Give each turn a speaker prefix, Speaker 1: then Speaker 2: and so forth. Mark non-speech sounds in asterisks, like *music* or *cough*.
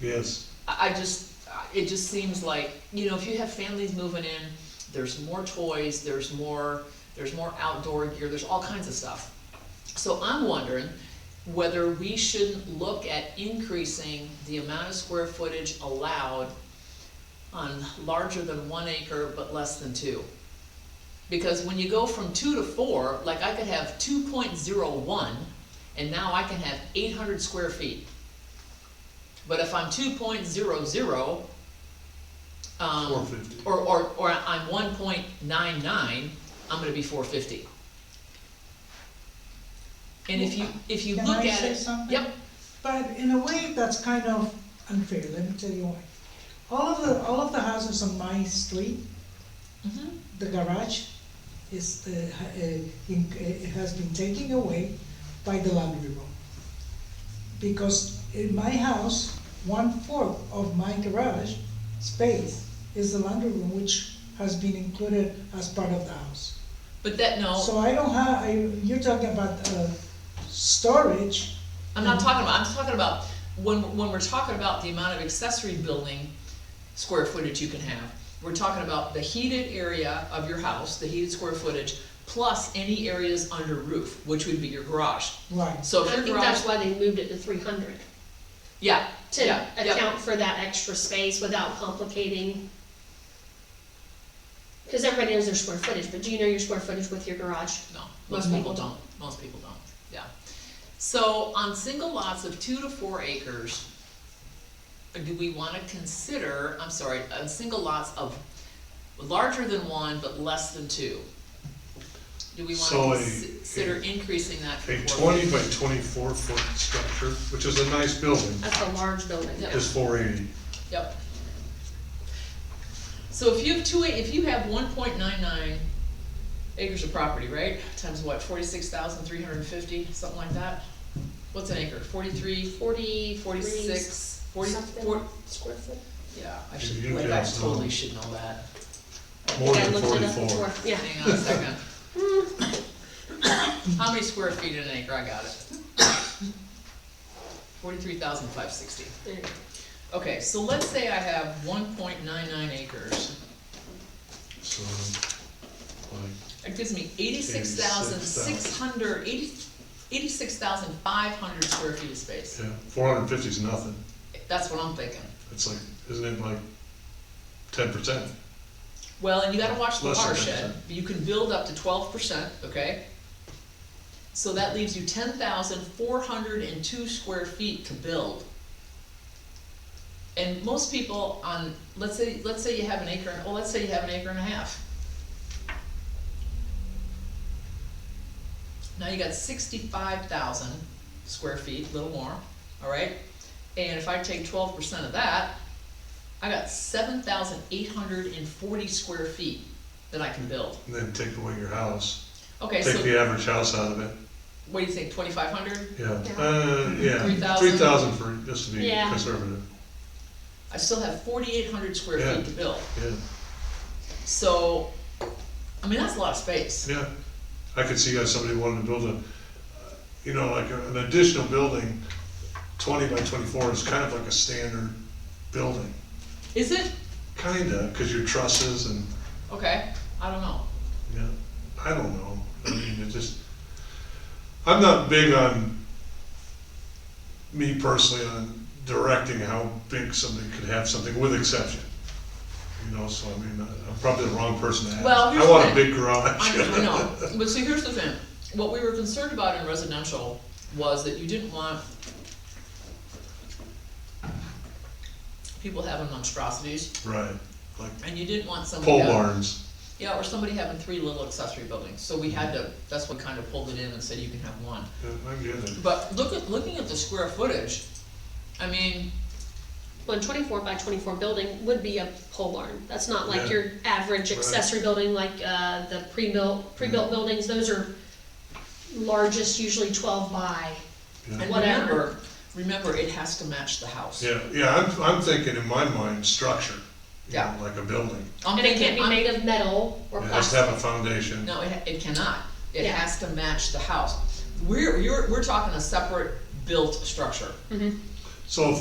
Speaker 1: Yes,
Speaker 2: I I just, I- it just seems like, you know, if you have families moving in, there's more toys, there's more, there's more outdoor gear, there's all kinds of stuff. So I'm wondering whether we shouldn't look at increasing the amount of square footage allowed on larger than one acre but less than two. Because when you go from two to four, like I could have two point zero one, and now I can have eight hundred square feet. But if I'm two point zero zero, um.
Speaker 1: four fifty.
Speaker 2: Or, or, or I'm one point nine nine, I'm gonna be four fifty. And if you, if you
Speaker 3: Can
Speaker 2: look
Speaker 3: I
Speaker 2: at
Speaker 3: say
Speaker 2: it,
Speaker 3: something?
Speaker 2: yep,
Speaker 3: But in a way, that's kind of unfair, let me tell you why. All of the, all of the houses on my street,
Speaker 2: mhm,
Speaker 3: the garage is, uh, ha- uh, in- uh, has been taken away by the library room. Because in my house, one-fourth of my garage space is the laundry room, which has been included as part of the house.
Speaker 2: but that, no,
Speaker 3: So I don't have, I, you're talking about, uh, storage,
Speaker 2: I'm not talking about, I'm talking about, when, when we're talking about the amount of accessory building square footage you can have, we're talking about the heated area of your house, the heated square footage, plus any areas under roof, which would be your garage.
Speaker 3: right?
Speaker 2: So if
Speaker 4: I
Speaker 2: your
Speaker 4: think
Speaker 2: garage,
Speaker 4: that's why they moved it to three hundred,
Speaker 2: yeah,
Speaker 4: to
Speaker 2: yeah, yeah,
Speaker 4: account for that extra space without complicating. Cause everybody knows their square footage, but do you know your square footage with your garage?
Speaker 2: no, most
Speaker 3: No.
Speaker 2: people don't, most people don't, yeah. So on single lots of two to four acres, do we wanna consider, I'm sorry, on single lots of larger than one but less than two? Do we
Speaker 1: So a-
Speaker 2: wanna consider increasing that
Speaker 1: A
Speaker 2: from four?
Speaker 1: twenty by twenty-four foot structure, which is a nice building,
Speaker 4: That's a large building.
Speaker 2: Yeah.
Speaker 1: is four eighty.
Speaker 2: Yep. So if you have two, if you have one point nine nine acres of property, right, times what, forty-six thousand three hundred and fifty, something like that? What's an acre, forty-three,
Speaker 4: Forty, forty-six,
Speaker 2: forty-six, forty,
Speaker 4: something
Speaker 2: four,
Speaker 4: square foot?
Speaker 2: yeah, I
Speaker 1: You-
Speaker 2: should,
Speaker 1: you
Speaker 2: like, I
Speaker 1: guys know.
Speaker 2: totally should know that.
Speaker 1: More
Speaker 4: Yeah, I
Speaker 1: than
Speaker 4: looked it up
Speaker 1: forty-four.
Speaker 4: before. Yeah,
Speaker 2: Hang on a
Speaker 4: *coughs*
Speaker 2: second. How many square feet in an acre, I got it. Forty-three thousand five sixty.
Speaker 4: there you go.
Speaker 2: Okay, so let's say I have one point nine nine acres.
Speaker 1: So, like,
Speaker 2: That gives me eighty-six thousand six hundred, eighty, eighty-six thousand five hundred square feet of space.
Speaker 1: yeah, four hundred and fifty's nothing.
Speaker 2: That's what I'm thinking.
Speaker 1: It's like, isn't it like ten percent?
Speaker 2: Well, and you gotta watch the
Speaker 1: Less than
Speaker 2: watershed,
Speaker 1: 10%.
Speaker 2: you can build up to twelve percent, okay? So that leaves you ten thousand four hundred and two square feet to build. And most people on, let's say, let's say you have an acre, well, let's say you have an acre and a half. Now you got sixty-five thousand square feet, a little more, all right? And if I take twelve percent of that, I got seven thousand eight hundred and forty square feet that I can build.
Speaker 1: And then take away your house,
Speaker 2: Okay,
Speaker 1: take
Speaker 2: so
Speaker 1: the average house out of it,
Speaker 2: what do you think, twenty-five hundred?
Speaker 1: yeah,
Speaker 4: Yeah.
Speaker 1: uh, yeah.
Speaker 2: 3,000?
Speaker 1: Three thousand for, just to be
Speaker 4: Yeah.
Speaker 1: conservative,
Speaker 2: I still have forty-eight hundred square
Speaker 1: Yeah.
Speaker 2: feet to build.
Speaker 1: yeah,
Speaker 2: So, I mean, that's a lot of space.
Speaker 1: yeah. I could see guys, somebody wanting to build a, uh, you know, like a- an additional building, twenty by twenty-four is kind of like a standard building.
Speaker 2: Is it?
Speaker 1: Kinda, cause your trusses and,
Speaker 2: Okay, I don't know.
Speaker 1: yeah, I don't know, I mean, it just, I'm not big on, me personally, on directing how big something could have something with exception. You know, so I mean, I- I'm probably the wrong person to ask.
Speaker 2: Well, here's
Speaker 1: I want
Speaker 2: the
Speaker 1: a
Speaker 2: thing.
Speaker 1: big garage.
Speaker 2: I
Speaker 1: *laughs*
Speaker 2: know, I know, but see, here's the thing, what we were concerned about in residential was that you didn't want people having monstrosities,
Speaker 1: Right, like
Speaker 2: and you didn't want somebody
Speaker 1: pole
Speaker 2: having-
Speaker 1: barns,
Speaker 2: Yeah, or somebody having three little accessory buildings, so we had to, that's what kind of pulled it in and said you can have one.
Speaker 1: yeah, I get it.
Speaker 2: But look at, looking at the square footage, I mean,
Speaker 4: Well, a twenty-four by twenty-four building would be a pole barn. That's not like
Speaker 1: Yeah.
Speaker 4: your average
Speaker 1: Right.
Speaker 4: accessory building, like, uh, the pre-built, pre-built buildings, those are largest, usually twelve by.
Speaker 1: Yeah.
Speaker 2: and
Speaker 4: Whatever.
Speaker 2: remember, remember, it has to match the house.
Speaker 1: Yeah, yeah, I'm, I'm thinking in my mind, structure, you
Speaker 2: Yeah.
Speaker 1: know, like a building.
Speaker 2: I'm
Speaker 4: And it
Speaker 2: thinking,
Speaker 4: can't be
Speaker 2: I'm,
Speaker 4: made of metal or
Speaker 1: It has to have
Speaker 4: plastic.
Speaker 1: a foundation.
Speaker 2: no, it, it cannot, it
Speaker 4: Yeah.
Speaker 2: has to match the house. We're, you're, we're talking a separate built structure.
Speaker 1: So if